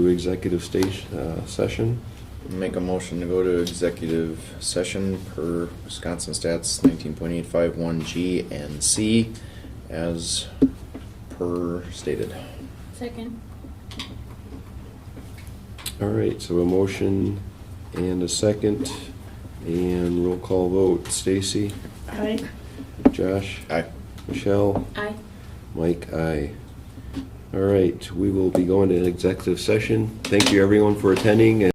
to executive stage, uh, session. Make a motion to go to executive session per Wisconsin Stats nineteen point eight five one G and C as per stated. Second. All right, so a motion and a second, and roll call vote. Stacy, Aye. Josh, Aye. Michelle, Aye. Mike, I. All right, we will be going to executive session. Thank you, everyone, for attending, and